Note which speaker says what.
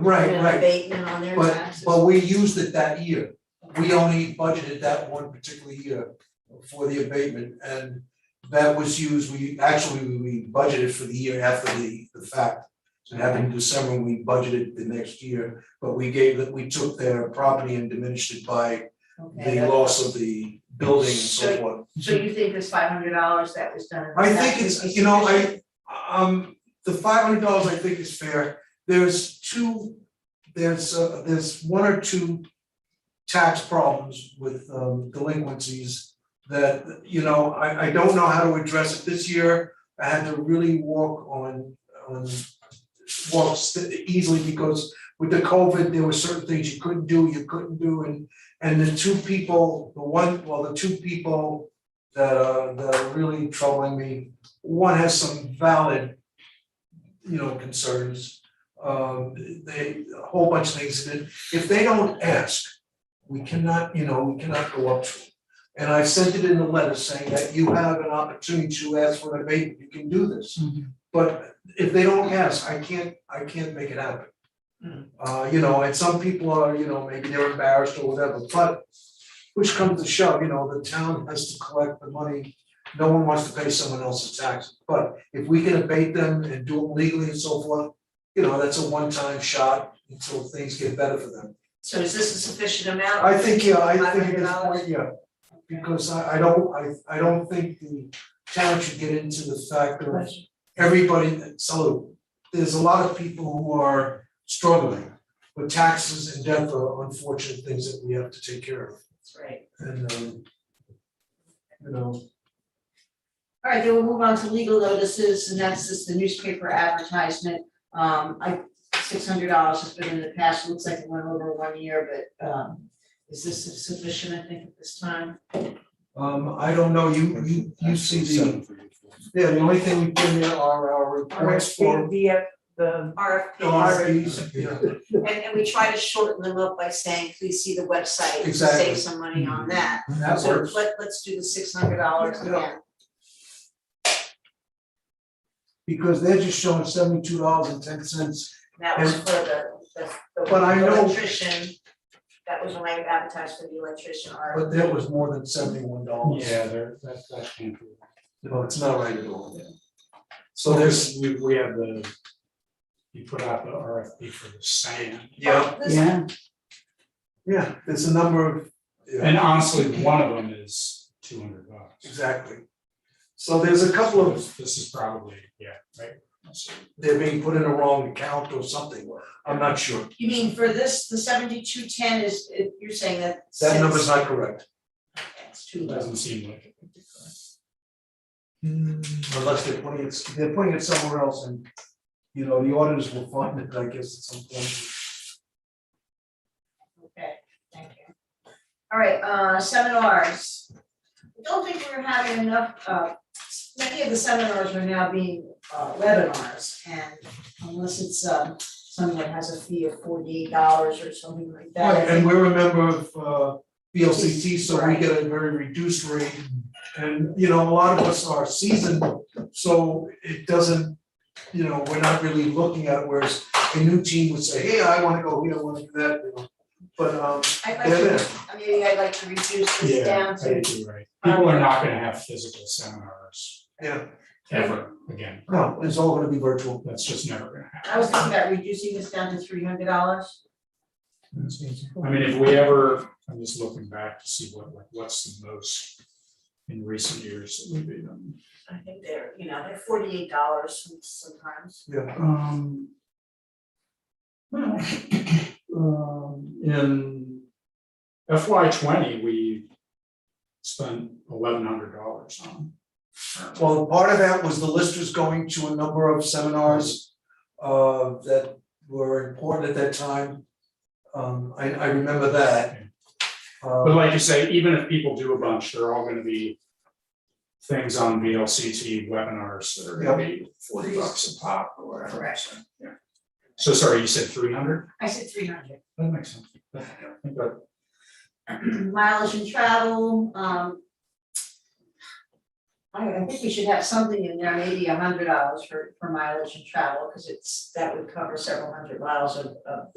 Speaker 1: Right,
Speaker 2: an
Speaker 1: right,
Speaker 2: abatement on their
Speaker 1: but
Speaker 2: taxes.
Speaker 1: but we used it that year. We only budgeted that one particular year for the abatement and that was used, we actually, we budgeted for the year after the the fact. So it happened in December, and we budgeted the next year, but we gave, that we took their property and diminished it by
Speaker 2: Okay,
Speaker 1: the
Speaker 2: but-
Speaker 1: loss of the building and so
Speaker 2: Right.
Speaker 1: forth.
Speaker 2: So you think this five hundred dollars that was done? in the
Speaker 1: I
Speaker 2: past
Speaker 1: think it's,
Speaker 2: is
Speaker 1: you know,
Speaker 2: sufficient?
Speaker 1: I, um, the five hundred dollars I think is fair, there's two, there's, uh, there's one or two tax problems with, um, delinquencies that, you know, I, I don't know how to address it this year, I had to really walk on, on walk st- easily because with the COVID, there were certain things you couldn't do, you couldn't do, and, and the two people, the one, well, the two people that are, that are really troubling me. One has some valid, you know, concerns. Um, they, a whole bunch of things that, if they don't ask, we cannot, you know, we cannot go up to them. And I sent it in a letter saying that you have an opportunity to ask for an abatement, you can do this. But if they don't ask, I can't, I can't make it happen.
Speaker 2: Mm.
Speaker 1: Uh, you know, and some people are, you know, maybe they're embarrassed or whatever, but which comes to shove, you know, the town has to collect the money. No one wants to pay someone else's taxes, but if we can abate them and do it legally and so forth, you know, that's a one-time shot until things get better for them.
Speaker 2: So is this a sufficient amount?
Speaker 1: I think, yeah, I think it's,
Speaker 2: $500?
Speaker 1: yeah, because I I don't, I I don't think the town should get into the fact of everybody, so there's a lot of people who are struggling. But taxes and debt are unfortunate things that we have to take care of
Speaker 2: That's right.
Speaker 1: and um. You know,
Speaker 2: All right, then we'll move on to legal notices, and that's just the newspaper advertisement. Um, I, six hundred dollars has been in the past, looks like it went over one year, but, um, is this sufficient, I think, at this time?
Speaker 1: um I don't know, you you you see the, yeah, the only thing we put in there are our reports
Speaker 3: RFP
Speaker 1: for
Speaker 3: via the,
Speaker 2: RFPs,
Speaker 1: RFPs, yeah.
Speaker 2: and, and we try to shorten them up by saying, please see the website, to
Speaker 1: Exactly. Mm-hmm.
Speaker 2: save some money on that.
Speaker 1: That
Speaker 2: So
Speaker 1: works,
Speaker 2: let, let's do the six hundred dollars
Speaker 1: Yeah.
Speaker 2: again.
Speaker 1: because they're just showing seventy-two dollars and ten cents,
Speaker 2: That was for the, the,
Speaker 1: But I
Speaker 2: the
Speaker 1: know-
Speaker 2: electrician, that was when I advertised for the electrician RFP.
Speaker 1: but that was more than seventy-one dollars.
Speaker 4: Yeah, there, that's, that's true.
Speaker 1: No, it's not right at all. So
Speaker 4: So
Speaker 1: there's,
Speaker 4: there's, we, we have the, you put out the RFP for the sand.
Speaker 1: yeah,
Speaker 2: Oh, This-
Speaker 3: yeah,
Speaker 1: Yeah, there's a number of.
Speaker 4: And honestly, one of them is two hundred bucks.
Speaker 1: Exactly. So there's a couple of,
Speaker 4: This this is probably, yeah, right? So
Speaker 1: they're being put in a wrong account or something, I'm not sure,
Speaker 2: You mean for this, the seventy-two ten is, it- you're saying that since.
Speaker 1: that number's not correct.
Speaker 2: It's too
Speaker 4: It
Speaker 2: low.
Speaker 4: doesn't seem like it.
Speaker 1: Unless they're putting it, they're putting it somewhere else and, you know, the auditors will find it, I guess, at some point.
Speaker 2: Okay, thank you. All right, uh, seminars. I don't think we're having enough, uh, many of the seminars are now being uh, webinars, and unless it's, um, someone that has a fee of forty-eight dollars or something like that. I
Speaker 1: Right, and
Speaker 2: think-
Speaker 1: we're a member of uh VLCT, so we get a very reduced rate. And, you know, a lot of us are seasoned, so it doesn't, you know, we're not really looking at it, whereas a new team would say, hey, I wanna go here, I wanna do that, you know. But um,
Speaker 2: I'd like
Speaker 1: they're
Speaker 2: to, uh,
Speaker 1: there,
Speaker 2: maybe I'd like to reduce this
Speaker 4: Yeah,
Speaker 2: down
Speaker 4: I
Speaker 2: to,
Speaker 4: think you're right. People are not gonna have physical seminars
Speaker 1: yeah,
Speaker 4: ever again.
Speaker 1: no, it's all gonna be virtual.
Speaker 4: That's just never gonna happen.
Speaker 2: I was thinking about reducing this down to three hundred dollars.
Speaker 4: I mean, if we ever, I'm just looking back to see what, like, what's the most in recent years that we've been.
Speaker 2: I think they're, you know, they're forty-eight dollars sometimes.
Speaker 1: Yeah,
Speaker 4: Um. Well, um, in FY twenty, we spent eleven hundred dollars on.
Speaker 1: well, part of that was the listers going to a number of seminars uh that were important at that time. Um, I I remember that. Um,
Speaker 4: But like you say, even if people do a bunch, they're all gonna be things on VLCT webinars that are gonna be forty bucks a pop or whatever.
Speaker 2: Correct.
Speaker 4: so, yeah. So sorry, you said three hundred?
Speaker 2: I said three hundred.
Speaker 4: That makes sense. I think that
Speaker 2: mileage and travel, um. I I think we should have something in there, maybe a hundred dollars for for mileage and travel, because it's, that would cover several hundred miles of of